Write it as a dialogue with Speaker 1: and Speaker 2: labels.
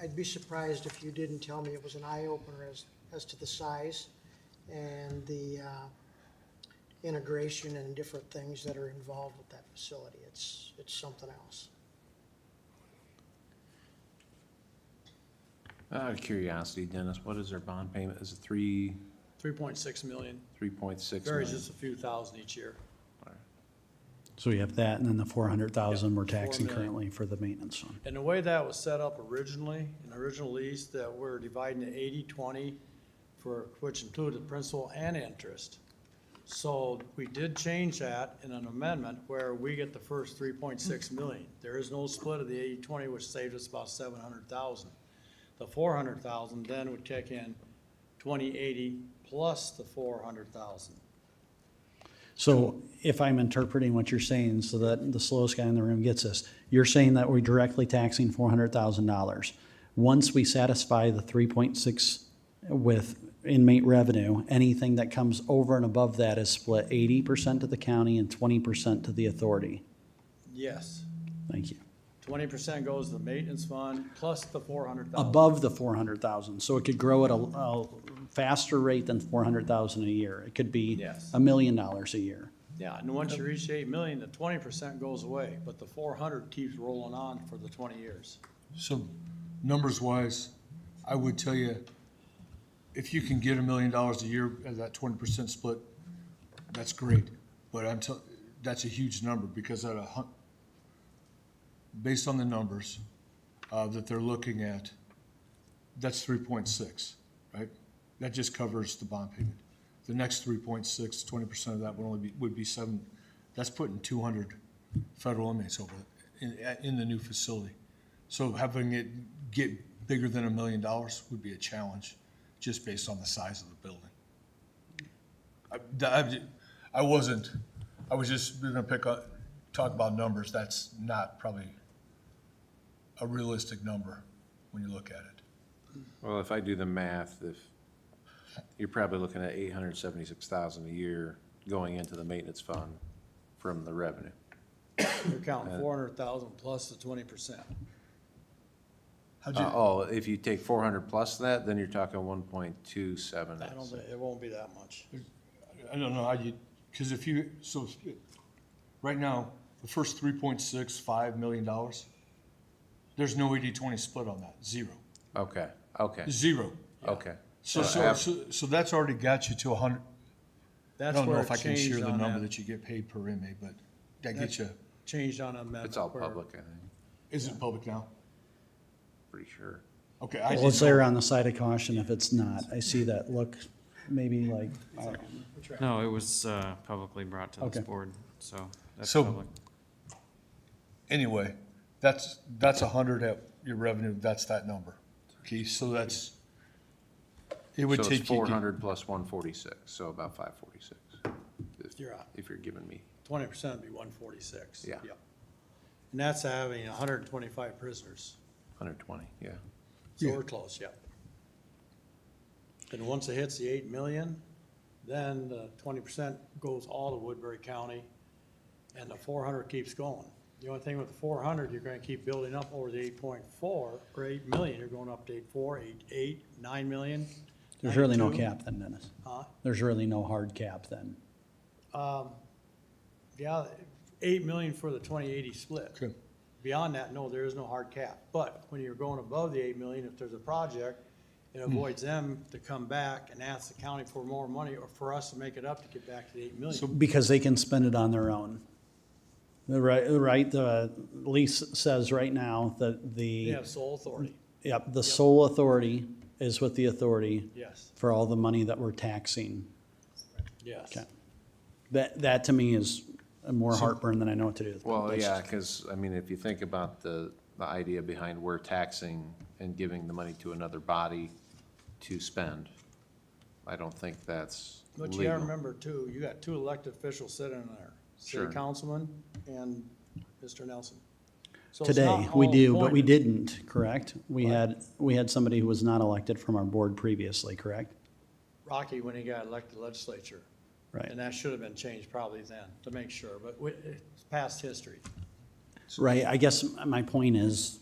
Speaker 1: I'd be surprised if you didn't tell me it was an eye-opener as, as to the size and the uh, integration and different things that are involved with that facility. It's, it's something else.
Speaker 2: Out of curiosity, Dennis, what is their bond payment? Is it three,
Speaker 3: Three point six million,
Speaker 2: three point six
Speaker 3: varies
Speaker 2: million?
Speaker 3: just a few thousand each year.
Speaker 4: So we have that, and then the four hundred thousand we're taxing
Speaker 3: million.
Speaker 4: currently for the maintenance fund.
Speaker 3: And the way that was set up originally, in the original lease, that we're dividing the 80-20 for, which included principal and interest. So we did change that in an amendment where we get the first three point six million. There is no split of the 80-20, which saved us about seven hundred thousand. The four hundred thousand then would kick in 20-80 plus the four hundred thousand.
Speaker 4: So if I'm interpreting what you're saying, so that the slowest guy in the room gets this, you're saying that we're directly taxing four hundred thousand dollars. Once we satisfy the three point six with inmate revenue, anything that comes over and above that is split eighty percent to the county and twenty percent to the authority.
Speaker 3: Yes,
Speaker 4: Thank you.
Speaker 3: twenty percent goes to the maintenance fund plus the four hundred thousand.
Speaker 4: above the four hundred thousand, so it could grow at a, a faster rate than four hundred thousand a year. It could be
Speaker 3: Yes.
Speaker 4: a million dollars a year.
Speaker 3: Yeah, and once you reach eight million, the twenty percent goes away, but the four hundred keeps rolling on for the twenty years.
Speaker 5: So, numbers wise, I would tell you, if you can get a million dollars a year as that twenty percent split, that's great. But I'm tell, that's a huge number because at a hun, based on the numbers, uh, that they're looking at, that's three point six, right? That just covers the bond payment. The next 3.6, 20 percent of that would only be, would be seven, that's putting two hundred federal inmates over in, in the new facility. So having it get bigger than a million dollars would be a challenge, just based on the size of the building. I- that- I, ju- I wasn't, I was just, we're gonna pick up, talk about numbers, that's not probably a realistic number when you look at it.
Speaker 2: Well, if I do the math, if, you're probably looking at eight hundred seventy-six thousand a year going into the maintenance fund from the revenue.
Speaker 3: You're counting four hundred thousand plus the twenty percent.
Speaker 5: How'd
Speaker 2: Uh,
Speaker 5: you,
Speaker 2: oh, if you take four hundred plus that, then you're talking one point two seven.
Speaker 3: I don't think, it won't be that much.
Speaker 5: I don't know how you, because if you, so, right now, the first three point six, five million dollars, there's no eighty-twenty split on that, zero,
Speaker 2: Okay, okay,
Speaker 5: zero.
Speaker 2: okay.
Speaker 5: So,
Speaker 2: Uh,
Speaker 5: so,
Speaker 2: af-
Speaker 5: so, so that's already got you to a hundred, I
Speaker 3: That's
Speaker 5: don't know
Speaker 3: where
Speaker 5: if I
Speaker 3: it
Speaker 5: can share
Speaker 3: changed
Speaker 5: the
Speaker 3: on
Speaker 5: number
Speaker 3: that,
Speaker 5: that you get paid per inmate, but that
Speaker 3: That's-
Speaker 5: gets you,
Speaker 3: changed on amendment.
Speaker 2: It's all
Speaker 3: where-
Speaker 2: public, I think,
Speaker 5: is it public now?
Speaker 2: pretty sure.
Speaker 5: Okay, I
Speaker 4: Well, it's
Speaker 5: just,
Speaker 4: there on the side of caution if it's not. I see that look, maybe like, I don't know.
Speaker 6: No, it was uh, publicly brought to
Speaker 4: Okay.
Speaker 6: this board, so that's
Speaker 5: So-
Speaker 6: public.
Speaker 5: anyway, that's, that's a hundred at your revenue, that's that number. Okay, so that's, it would
Speaker 2: So it's
Speaker 5: take you,
Speaker 2: four
Speaker 5: get-
Speaker 2: hundred plus one forty-six, so about five forty-six.
Speaker 3: You're out.
Speaker 2: If you're giving me,
Speaker 3: Twenty percent would be one forty-six.
Speaker 2: Yeah.
Speaker 3: And that's having hundred and twenty-five prisoners.
Speaker 2: hundred twenty, yeah.
Speaker 3: So
Speaker 5: Yeah.
Speaker 3: we're close, yeah. And once it hits the eight million, then the twenty percent goes all to Woodbury County, and the four hundred keeps going. The only thing with the four hundred, you're gonna keep building up over the eight point four, or eight million, you're going up to eight four, eight eight, nine million.
Speaker 4: there's really no
Speaker 3: 92.
Speaker 4: cap then, Dennis.
Speaker 3: Huh?
Speaker 4: There's really no hard cap then.
Speaker 3: Yeah, eight million for the twenty eighty split.
Speaker 5: Okay.
Speaker 3: Beyond that, no, there is no hard cap, but when you're going above the eight million, if there's a project, it
Speaker 4: Hmm.
Speaker 3: avoids them to come back and ask the county for more money or for us to make it up to get back to the eight million.
Speaker 4: Because they can spend it on their own. The right, right, the lease says right now that
Speaker 3: They
Speaker 4: the,
Speaker 3: have sole authority,
Speaker 4: yep, the sole authority is with the authority
Speaker 3: yes,
Speaker 4: for all the money that we're taxing.
Speaker 3: yes.
Speaker 4: Okay. That, that to me is more heartburn than I know what to do with.
Speaker 2: Well,
Speaker 4: That's-
Speaker 2: yeah, because, I mean, if you think about the, the idea behind we're taxing and giving the money to another body to spend, I don't think that's
Speaker 3: But you
Speaker 2: legal.
Speaker 3: gotta remember too, you got two elected officials sitting there,
Speaker 2: Sure.
Speaker 3: city councilman and Mr. Nelson. So it's
Speaker 4: Today,
Speaker 3: not
Speaker 4: we
Speaker 3: all
Speaker 4: do, but we
Speaker 3: appointed.
Speaker 4: didn't, correct? We had, we had somebody who was not elected from our board previously, correct?
Speaker 3: Rocky when he got elected legislature.
Speaker 4: Right,
Speaker 3: And that should have been changed probably then, to make sure, but we- it's past history.
Speaker 4: right. I guess my point is,